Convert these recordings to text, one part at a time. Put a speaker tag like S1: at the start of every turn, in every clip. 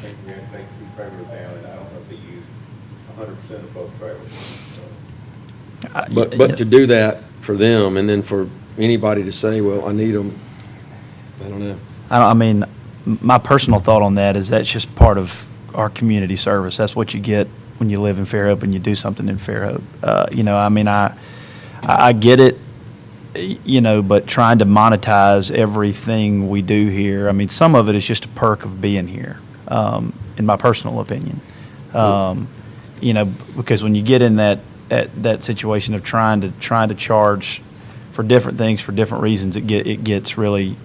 S1: engineering thing, two trailers down, and I don't know if they use hundred percent of both trailers, so.
S2: I-
S3: But, but to do that for them, and then for anybody to say, well, I need them, I don't know.
S2: I, don't- I mean, m- my personal thought on that is that's just part of our community service. That's what you get when you live in Fairhope and you do something in Fairhope. Uh, you know, I mean, I, I I get it, y- you know, but trying to monetize everything we do here, I mean, some of it is just a perk of being here, um, in my personal opinion. Um, you know, because when you get in that, that, that situation of trying to, trying to charge for different things for different reasons, it get, it gets really,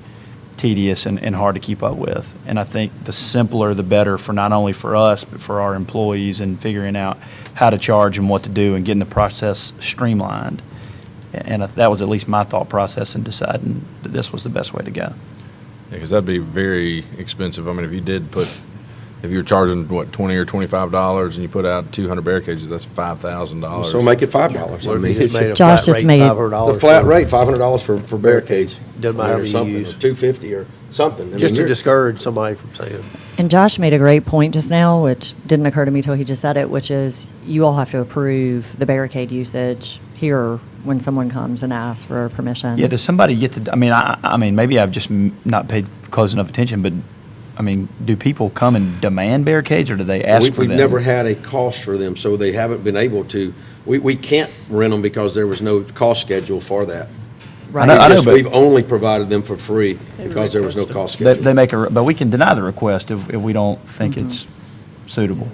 S2: tedious and, and hard to keep up with. And I think the simpler, the better for not only for us, but for our employees and figuring out how to charge and what to do and getting the process streamlined. A- And I- that was at least my thought process in deciding that this was the best way to go.
S3: Mm-hmm.
S4: Because that'd be very expensive. I mean, if you did put, if you were charging, what, twenty or twenty-five dollars and you put out two hundred barricades, that's five thousand dollars.
S3: So make it five dollars. I
S5: What if you
S3: mean,
S5: just
S3: it's
S5: made a
S6: Josh
S5: flat
S6: just
S5: rate,
S6: made it-
S3: the
S5: $500
S3: flat
S5: for-
S3: rate, five hundred dollars for, for barricades.
S5: Doesn't matter
S3: or
S5: how you
S3: something,
S5: use.
S3: or Two fifty or something. I mean,
S5: Just to
S3: you're-
S5: discourage somebody from saying,
S6: And Josh made a great point just now, which didn't occur to me till he just said it, which is you all have to approve the barricade usage here when someone comes and asks for permission.
S2: Yeah, does somebody get to, I mean, I, I mean, maybe I've just m- not paid close enough attention, but, I mean, do people come and demand barricades or do they ask
S3: We-
S2: for them?
S3: We've never had a cost for them, so they haven't been able to, we, we can't rent them because there was no cost schedule for that.
S2: I
S6: Right.
S2: know, I know,
S3: Just-
S2: but-
S3: We've only provided them for free because there was no cost
S2: They,
S3: schedule.
S2: they make a, re- but we can deny the request if, if we don't think
S3: Mm-hmm.
S2: it's suitable.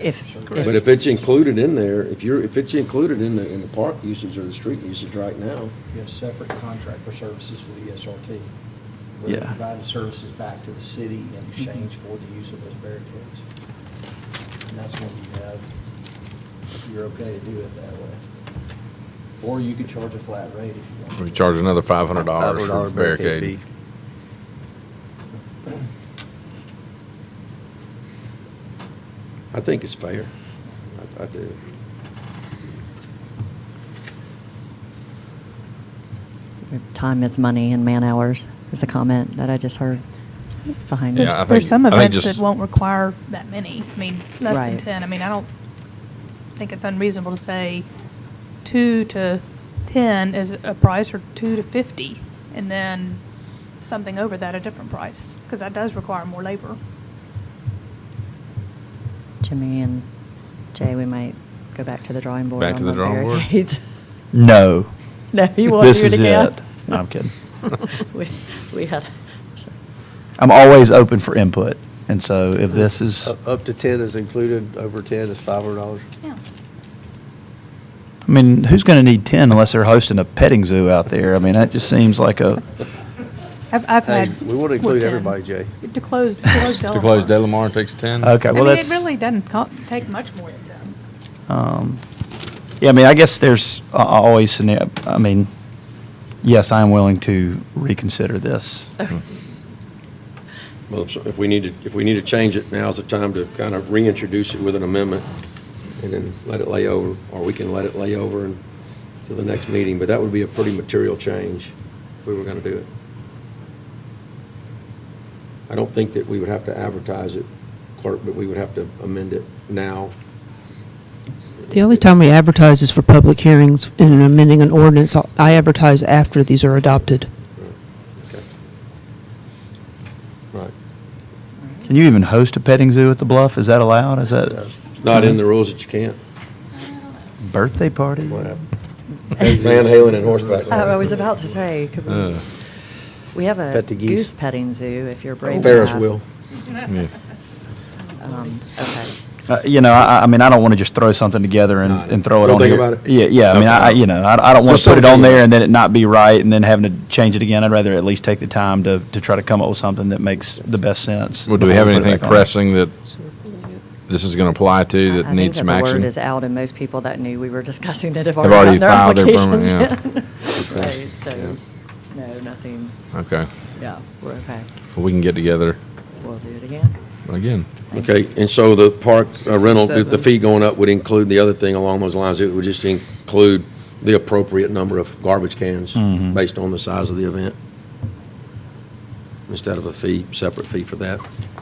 S6: If,
S3: But
S6: if,
S3: if it's included in there, if you're, if it's included in the, in the park usage or the street usage right now,
S7: We have a separate contract for services for the E ESRT. We're
S2: Yeah.
S7: providing services back to the city in exchange for the use of those barricades. And that's when you have, you're okay to do it that way. Or you could charge a flat rate if you want.
S4: We charge another five hundred dollars for
S5: $500 barricade fee.
S4: barricade.
S3: I think it's fair. I, I do.
S6: time is money and man hours is a comment that I just heard behind
S4: Yeah, I
S6: us.
S4: think-
S8: There's some
S4: I think
S8: events
S4: just-
S8: that won't require that many. I mean, less than
S6: Right.
S8: 10. I mean, I don't think it's unreasonable to say 2 to 10 is a price or 2 to 50, and then something over that, a different price, because that does require more labor.
S6: Jimmy and Jay, we might go back to the drawing board
S4: Back to
S6: on
S4: the
S6: the
S4: drawing board?
S6: barricades.
S2: No.
S6: No, you won't
S2: This
S6: hear it
S2: is
S6: again.
S2: it. No, I'm kidding.
S6: We, we had,
S2: I'm always open for input, and so if this is,
S5: up up to 10 is included, over 10 is $500.
S8: Yeah.
S2: I mean, who's going to need ten unless they're hosting a petting zoo out there? I mean, that just seems like a.
S8: I've, I've
S5: Hey,
S8: had.
S5: we want to
S8: what,
S5: include
S8: 10?
S5: everybody, Jay.
S8: To close, to close
S4: To close
S8: Delamar.
S4: Delamar takes ten.
S2: Okay,
S8: I
S2: well,
S8: mean, it
S2: that's.
S8: really doesn't co- take much more than 10.
S2: um, Yeah, I mean, I guess there's a- a- always, scenar- I mean, yes, I am willing to reconsider this.
S3: Well, if, if we need to, if we need to change it, now's the time to kind of reintroduce it with an amendment and then let it lay over, or we can let it lay over and, to the next meeting, but that would be a pretty material change if we were gonna do it. I don't think that we would have to advertise it, clerk, but we would have to amend it now.
S9: The only time we advertise is for public hearings and amending an ordinance. I advertise after these are adopted.
S3: Okay. Right.
S2: Can you even host a petting zoo at the Bluff? Is that allowed? Is that
S3: It's not in the rules that you can't.
S2: birthday party?
S3: What happened? Van Halen and horseback.
S6: Oh, I was about to say, could we,
S4: Uh,
S6: we have a
S5: Pet the geese.
S6: goose petting zoo if you're brave enough.
S3: Ferris wheel.
S4: yeah.
S6: Um, Okay.
S2: Uh, You know, I, I mean, I don't want to just throw something together and,
S3: No, no.
S2: and throw it
S3: We'll
S2: on
S3: think
S2: here.
S3: about it.
S2: Yeah, yeah, I mean, I, I- you know, I, I don't want
S3: Just
S2: to put it
S3: something.
S2: on there and then it not be right and then having to change it again. I'd rather at least take the time to, to try to come up with something that makes the best sense.
S4: Well, do we
S2: before
S4: have
S2: put it
S4: anything
S2: back on there.
S4: pressing that this is gonna apply
S6: I-
S4: to
S6: I
S4: that
S6: think
S4: needs some
S6: The word
S4: action?
S6: is out, and most people that knew we were discussing it have
S4: Have
S6: already gotten
S4: already
S6: their
S4: filed their
S6: applications
S4: permit,
S6: in. Right, so, no, nothing,
S4: Okay,
S6: yeah, we're okay.
S4: well, we can get together
S6: We'll do it again.
S4: again.
S3: Okay, and so the park uh,
S9: and
S3: rental, the- the
S9: seven.
S3: fee going up would include the other thing along those lines. It would just include the appropriate number of garbage cans based on the size of the event. Instead of a fee, separate fee for that.